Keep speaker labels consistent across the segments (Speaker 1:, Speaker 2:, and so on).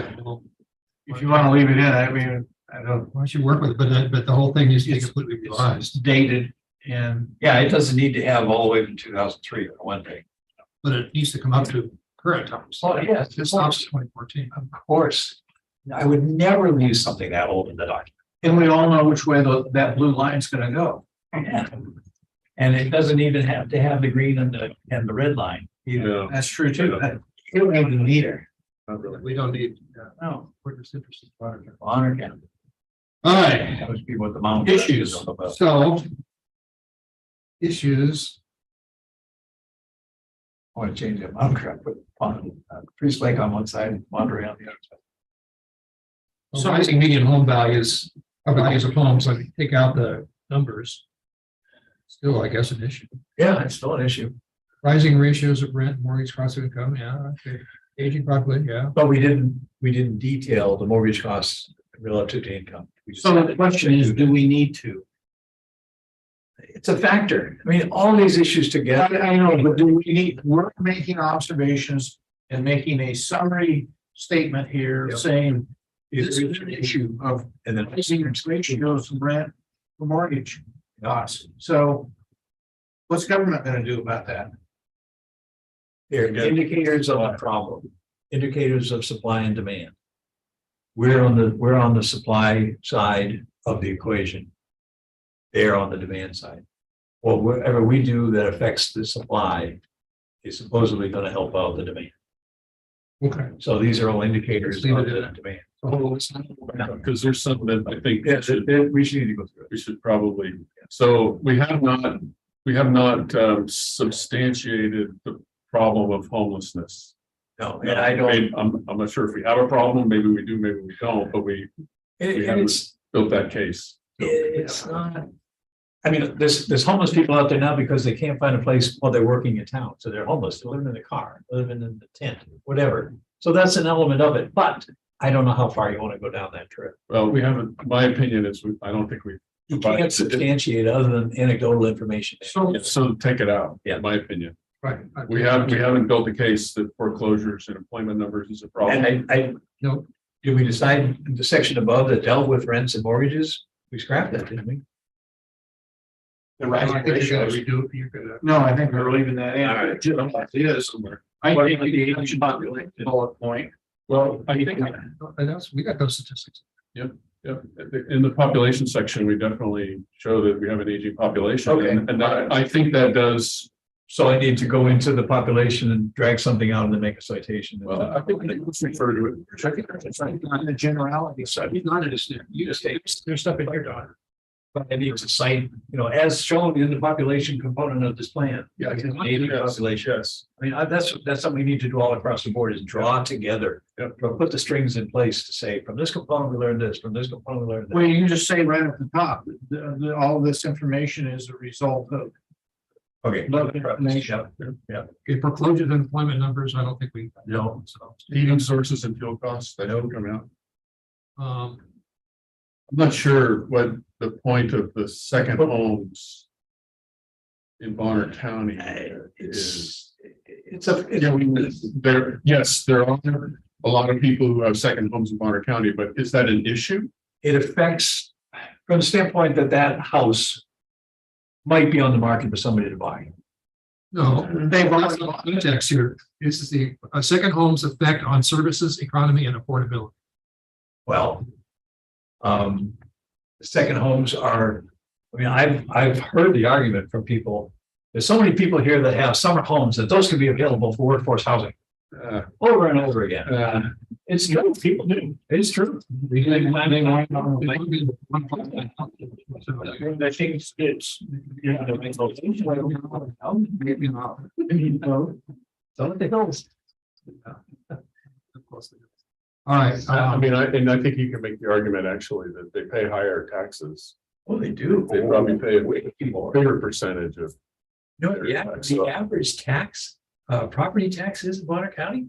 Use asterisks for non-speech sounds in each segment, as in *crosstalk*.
Speaker 1: Right, well,
Speaker 2: If you want to leave it in, I mean, I don't,
Speaker 1: Why don't you work with, it? but, that- but the whole thing needs to be
Speaker 2: It's-
Speaker 1: completely
Speaker 2: it's
Speaker 1: revised,
Speaker 2: dated and
Speaker 3: Yeah, it doesn't need to have all the way to two thousand three or one day.
Speaker 1: but it needs to come up to current times.
Speaker 3: Oh, yeah,
Speaker 1: It stops twenty fourteen.
Speaker 3: Of course, I would never leave something that old in the document.
Speaker 2: and we all know which way tho- that blue line's going to go.
Speaker 3: Yeah. And it doesn't even have to have the green and the, and the red line.
Speaker 4: Yeah,
Speaker 2: That's true too. That- You don't need the meter.
Speaker 4: not really.
Speaker 1: We don't need, uh,
Speaker 3: No.
Speaker 1: we're just interested. in water.
Speaker 3: Honor count.
Speaker 1: All right,
Speaker 3: That would be what the mountain.
Speaker 1: issues, so. Issues,
Speaker 3: I want to change that mountain crap, put on, uh, Priest Lake on one side, and Monterey on the other. side.
Speaker 1: so rising median home values, or values of homes, like take out the numbers. Still, I guess, an issue.
Speaker 3: Yeah, it's still an issue,
Speaker 1: Rising ratios of rent, mortgage cost of income, yeah, okay. Aging population, yeah.
Speaker 3: but we didn't, we didn't detail the mortgage costs relative to income. We just-
Speaker 2: So the question is, do we need to?
Speaker 3: It's a factor. I mean, all these issues
Speaker 2: I,
Speaker 3: together.
Speaker 2: I know, but do we need, we're making observations and making a summary statement here
Speaker 3: Yeah.
Speaker 2: saying this is an issue of
Speaker 3: And then
Speaker 2: rising ratios of rent, for mortgage costs. So what's government going to do about that?
Speaker 3: They're indicators of a problem, indicators of supply and demand. We're on the, we're on the supply side of the equation. They're on the demand side. Well, whatever we do that affects the supply is supposedly going to help out the demand.
Speaker 1: Okay.
Speaker 3: So these are all indicators of the demand. Oh,
Speaker 4: Because there's something that I think
Speaker 3: Yeah,
Speaker 4: should-
Speaker 3: that- that we should need to go through
Speaker 4: we should probably, so we have not, we have not um, substantiated the problem of homelessness.
Speaker 3: it. No, and I don't,
Speaker 4: Maybe- I'm, I'm not sure if we have a problem, maybe we do, maybe we don't, but we
Speaker 3: and and it's,
Speaker 4: built that case.
Speaker 3: It's not. I mean, there's, there's homeless people out there now because they can't find a place while they're working in town, so they're homeless, they're living in the car, living in the tent, whatever. So that's an element of it, but I don't know how far you want to go down that trip.
Speaker 4: Well, we haven't, my opinion is, we- I don't think we,
Speaker 3: You
Speaker 4: Right.
Speaker 3: can't substantiate other than anecdotal information.
Speaker 2: So
Speaker 4: so take it out,
Speaker 3: Yeah.
Speaker 4: in my opinion.
Speaker 1: Right. I-
Speaker 4: We have, we haven't built a case that foreclosures and employment numbers is a problem.
Speaker 3: And I, I.
Speaker 1: No.
Speaker 3: Did we decide the section above that dealt with rents and mortgages? We scrapped that, didn't we?
Speaker 2: the
Speaker 1: I
Speaker 2: rising
Speaker 1: think you gotta
Speaker 2: ratios.
Speaker 1: redo it, you're gonna.
Speaker 2: No, I think we're leaving that in.
Speaker 4: All right, I'm like, yeah, somewhere.
Speaker 2: I think the aging population bullet point.
Speaker 4: Well, I think,
Speaker 1: And that's, we got those statistics.
Speaker 4: Yeah, in the population section, we definitely show that we have an aging population.
Speaker 3: Okay.
Speaker 4: And and that, I think that does,
Speaker 3: So I need to go into the population and drag something out and then make a citation.
Speaker 4: well, I think that was referred to it.
Speaker 2: Check it, it's like on the generality side.
Speaker 1: It's not a snare. You just, there's stuff in here, Don.
Speaker 3: But I need to cite, you know, as shown in the population component of this plan.
Speaker 4: Yeah, I can-
Speaker 3: Native
Speaker 4: yes,
Speaker 3: population.
Speaker 4: Yes,
Speaker 3: I mean, I- that's, that's something we need to do all across the board is draw together.
Speaker 4: Yep.
Speaker 3: Or put the strings in place to say, from this component, we learned this, from this component, we learned that.
Speaker 2: Well, you can just say right at the top, the, the, all this information is a result of.
Speaker 3: Okay.
Speaker 2: Love information.
Speaker 1: Okay, foreclosure and employment numbers, I don't think we.
Speaker 3: No.
Speaker 1: So,
Speaker 4: heating sources and fuel costs, that don't come out.
Speaker 1: Um,
Speaker 4: I'm not sure what the point of the second homes in Bonner County is.
Speaker 3: It's, it's a,
Speaker 4: Yeah,
Speaker 3: it's-
Speaker 4: we, there, yes, there are a lot of people who have second homes in Bonner County, but is that an issue?
Speaker 3: it affects, from the standpoint that that house might be on the market for somebody to buy.
Speaker 1: no,
Speaker 2: They've
Speaker 1: that's
Speaker 2: already,
Speaker 1: not context here. This is the, uh, second home's effect on services, economy and affordability.
Speaker 3: Well. Um, second homes are, I mean, I've, I've heard the argument from people. There's so many people here that have summer homes that those could be available for workforce housing
Speaker 4: Uh,
Speaker 3: over and over again.
Speaker 4: uh,
Speaker 3: It's true, people do. It's true.
Speaker 1: They- they- they want- So,
Speaker 2: I think it's- it's, you know,
Speaker 1: oh, Maybe not.
Speaker 3: Don't they know?
Speaker 1: Of course they do. All right,
Speaker 4: I
Speaker 1: um,
Speaker 4: mean, I, and I think you can make the argument actually that they pay higher taxes,
Speaker 3: Well, they do.
Speaker 4: They probably pay
Speaker 3: Way more.
Speaker 4: bigger percentage of.
Speaker 3: No, yeah, the average tax, uh, property taxes in Bonner County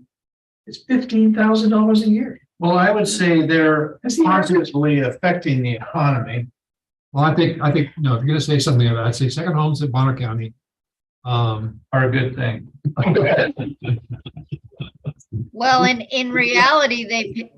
Speaker 3: is fifteen thousand dollars a year.
Speaker 2: well, I would say they're
Speaker 3: That's the average.
Speaker 2: positively affecting the economy.
Speaker 1: well, I think, I think, no, if you're gonna say something about, it, I'd say second homes in Bonner County. Um, *laughs*
Speaker 2: Are a good thing.
Speaker 5: Well, and in reality, they,